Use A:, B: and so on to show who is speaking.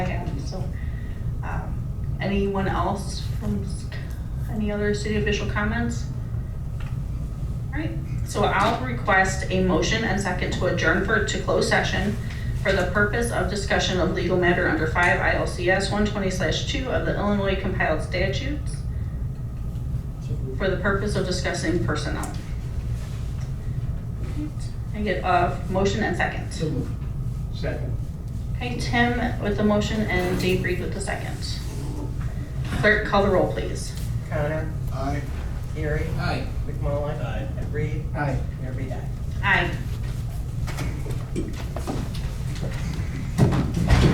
A: um, anyone else from s- any other city official comments? Alright, so I'll request a motion and second to adjourn for, to close session for the purpose of discussion of legal matter under five ILCS one twenty two of the Illinois compiled statutes for the purpose of discussing personnel. Alright, I get a motion and second.
B: So moved. Second.
A: Okay, Tim with the motion and Dave Reed with the second. Clerk, call the roll, please.
C: Connor,
B: Aye.
C: Erie,
B: Aye.
C: McMullen. and Reed,
B: Aye.
C: and Reed, aye.
A: Aye.